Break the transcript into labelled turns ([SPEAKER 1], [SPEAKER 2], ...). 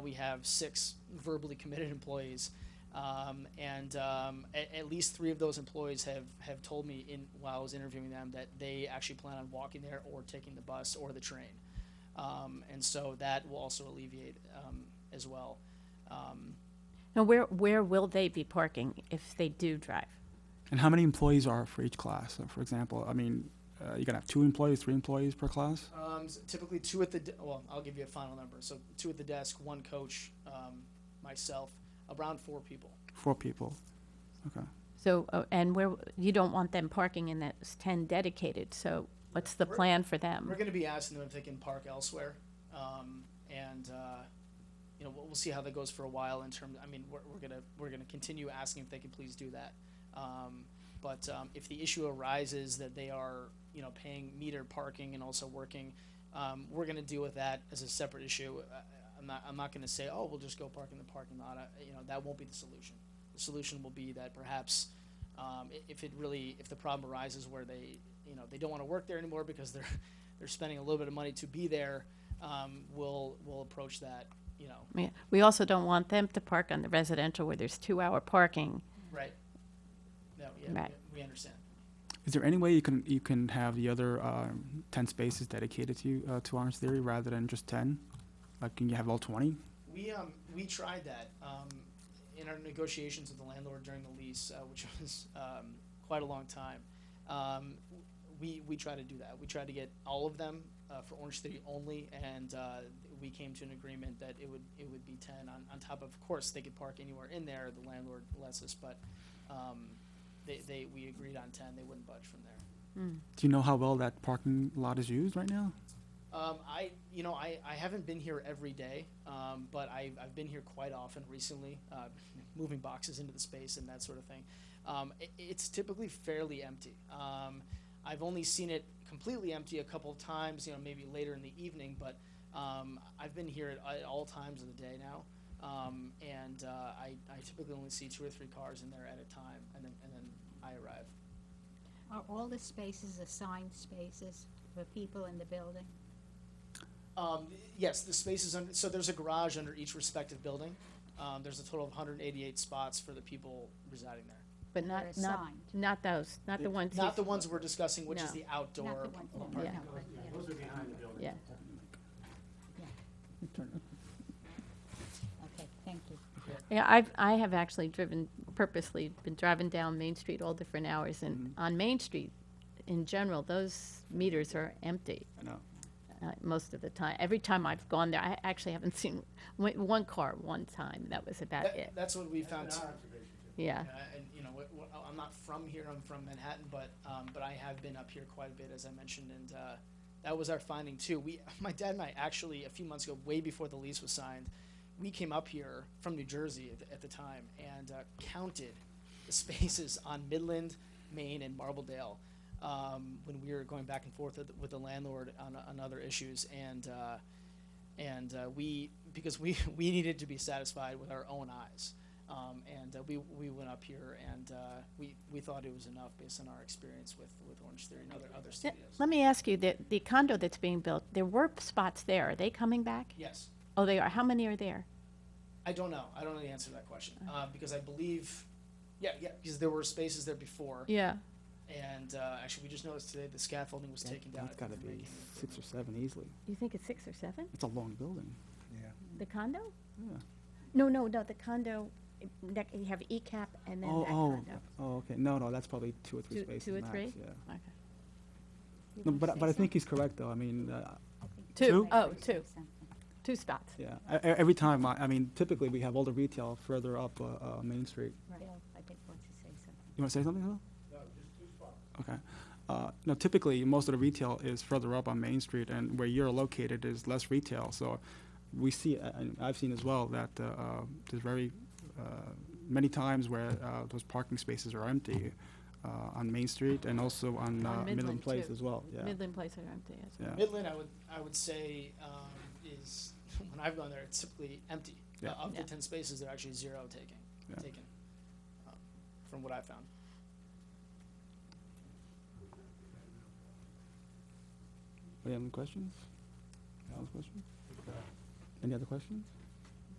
[SPEAKER 1] we have six verbally committed employees. Um, and um, at, at least three of those employees have, have told me in, while I was interviewing them that they actually plan on walking there or taking the bus or the train. Um, and so that will also alleviate um, as well.
[SPEAKER 2] Now, where, where will they be parking if they do drive?
[SPEAKER 3] And how many employees are for each class? So for example, I mean, uh, you're gonna have two employees, three employees per class?
[SPEAKER 1] Um, s- typically two at the, de- well, I'll give you a final number. So two at the desk, one coach, um, myself, around four people.
[SPEAKER 3] Four people. Okay.
[SPEAKER 2] So, uh, and where, you don't want them parking in those 10 dedicated, so what's the
[SPEAKER 1] We're-
[SPEAKER 2] plan for
[SPEAKER 1] We're
[SPEAKER 2] them?
[SPEAKER 1] going to be asking them if they can park elsewhere, um, and uh, you know we'll, we'll see how that goes for a while. In terms, I mean, we're, we're gonna we're gonna continue asking if they can please do that. Um, but um, if the issue arises that they are you know paying meter parking and also working, um, we're going to deal with that as a separate issue. Uh, I'm not I'm not going to say oh we'll just go park in the parking lot. I, you know that won't be the solution. The solution will be that perhaps um, i- if it really if the problem arises where they you know they don't want to work there anymore because they're they're spending a little bit of money to be there um, we'll we'll approach that you know
[SPEAKER 2] We- We also don't want them to park on the residential where there's two-hour parking.
[SPEAKER 1] right no yeah
[SPEAKER 2] Right.
[SPEAKER 1] we, we understand
[SPEAKER 3] Is there any way you can, you can have the other, um, ten spaces dedicated to, uh, to honors theory rather than just ten? Like, can you have all twenty?
[SPEAKER 1] we um we tried that um, in our negotiations with the landlord during the lease uh, which was um, quite a long time um, we we tried to do that we tried to get all of them uh, for Orange City only and uh, we came to an agreement that it would it would be 10 on, on top of of course they could park anywhere in there the landlord lets us but um, they, they we agreed on 10 they wouldn't budge from there
[SPEAKER 3] Do you know how well that parking lot is used right now?
[SPEAKER 1] Um, I, you know, I, I haven't been here every day, um, but I, I've been here quite often recently, uh, moving boxes into the space and that sort of thing. Um, i it's typically fairly empty. Um, I've only seen it completely empty a couple of times, you know, maybe later in the evening, but um, I've been here at, at all times of the day now. Um, and uh, I, I typically only see two or three cars in there at a time, and then, and then I arrive.
[SPEAKER 4] Are all the spaces assigned spaces for people in the building?
[SPEAKER 1] Um, yes, the spaces under, so there's a garage under each respective building. Um, there's a total of 188 spots for the people residing there.
[SPEAKER 2] But
[SPEAKER 4] They're
[SPEAKER 2] not, not,
[SPEAKER 4] assigned.
[SPEAKER 2] not those, not the ones.
[SPEAKER 1] Not
[SPEAKER 2] you-
[SPEAKER 1] the ones we're discussing, which is
[SPEAKER 2] No.
[SPEAKER 1] the outdoor.
[SPEAKER 4] Not the one,
[SPEAKER 1] part.
[SPEAKER 4] no, no,
[SPEAKER 2] Yeah.
[SPEAKER 4] but,
[SPEAKER 2] Yeah,
[SPEAKER 4] yeah. okay, thank you.
[SPEAKER 2] yeah, I've, I have actually driven purposely, been driving down Main Street all different hours, and
[SPEAKER 1] Mm-hmm.
[SPEAKER 2] on Main Street, in general, those meters are empty.
[SPEAKER 3] I know.
[SPEAKER 2] uh, most of the time. Every time I've gone there, I actually haven't seen w- one car one time. That was about
[SPEAKER 1] That-
[SPEAKER 2] it.
[SPEAKER 1] that's what we found. too.
[SPEAKER 2] Yeah.
[SPEAKER 1] Uh, and you know, wh- wh- I'm not from here. I'm from Manhattan, but um, but I have been up here quite a bit, as I mentioned, and uh, that was our finding too. We, my dad and I, actually a few months ago, way before the lease was signed, we came up here from New Jersey at the, at the time and uh, counted the spaces on Midland, Maine, and Marbledale um, when we were going back and forth with, with the landlord on, on other issues and. Uh, and uh, we because we we needed to be satisfied with our own eyes um, and uh, we we went up here and uh, we we thought it was enough based on our experience with with orange theory and other other
[SPEAKER 2] Th-
[SPEAKER 1] studios
[SPEAKER 2] Let me ask you, the, the condo that's being built, there were spots there. Are they coming back?
[SPEAKER 1] yes
[SPEAKER 2] Oh, they are. How many are there?
[SPEAKER 1] i don't know i don't know the answer to that question uh, because i believe yeah yeah because there were spaces there before
[SPEAKER 2] Yeah.
[SPEAKER 1] and uh, actually we just noticed today the scaffolding was taken down
[SPEAKER 3] That's
[SPEAKER 1] I think
[SPEAKER 3] gotta
[SPEAKER 1] they're
[SPEAKER 3] be
[SPEAKER 1] making an improvement.
[SPEAKER 3] six or seven easily.
[SPEAKER 2] You think it's six or seven?
[SPEAKER 3] It's a long building.
[SPEAKER 2] The condo?
[SPEAKER 3] Yeah.
[SPEAKER 2] No, no, no. The condo, eh, that, you have ECAP and then
[SPEAKER 3] Oh,
[SPEAKER 2] that
[SPEAKER 3] oh,
[SPEAKER 2] condo.
[SPEAKER 3] oh, okay. No, no, that's probably two or
[SPEAKER 2] Two-
[SPEAKER 3] three spaces
[SPEAKER 2] two or
[SPEAKER 3] max,
[SPEAKER 2] three?
[SPEAKER 3] Yeah.
[SPEAKER 2] Okay.
[SPEAKER 4] You
[SPEAKER 3] No, but,
[SPEAKER 4] wanna say
[SPEAKER 3] but I
[SPEAKER 4] something?
[SPEAKER 3] think he's correct, though. I mean, uh,
[SPEAKER 4] I think
[SPEAKER 2] Two.
[SPEAKER 4] you'd like
[SPEAKER 2] Oh,
[SPEAKER 4] to say
[SPEAKER 2] two.
[SPEAKER 4] something.
[SPEAKER 2] Two spots.
[SPEAKER 3] yeah, e- e- every time, I, I mean, typically we have all the retail further up, uh, uh, Main Street.
[SPEAKER 4] Bill, I did want to say something.
[SPEAKER 3] You want to say something, Phil? Okay. Uh, no, typically, most of the retail is further up on Main Street, and where you're located is less retail, so we see, uh, and I've seen as well, that, uh, uh, there's very, uh, many times where, uh, those parking spaces are empty, uh, on Main Street and also on,
[SPEAKER 2] On
[SPEAKER 3] uh,
[SPEAKER 2] Midland,
[SPEAKER 3] Midland Place
[SPEAKER 2] too.
[SPEAKER 3] as well, yeah.
[SPEAKER 2] Midland Place are empty as well.
[SPEAKER 3] Yeah.
[SPEAKER 1] Midland, I would, I would say, um, is, when I've gone there, it's typically empty. Uh,
[SPEAKER 3] Yeah.
[SPEAKER 1] Of the
[SPEAKER 2] Yeah.
[SPEAKER 1] ten spaces, they're actually zero taking,
[SPEAKER 3] Yeah.
[SPEAKER 1] taken, um, from what I found.
[SPEAKER 3] Any other questions? Any other questions? Any other questions?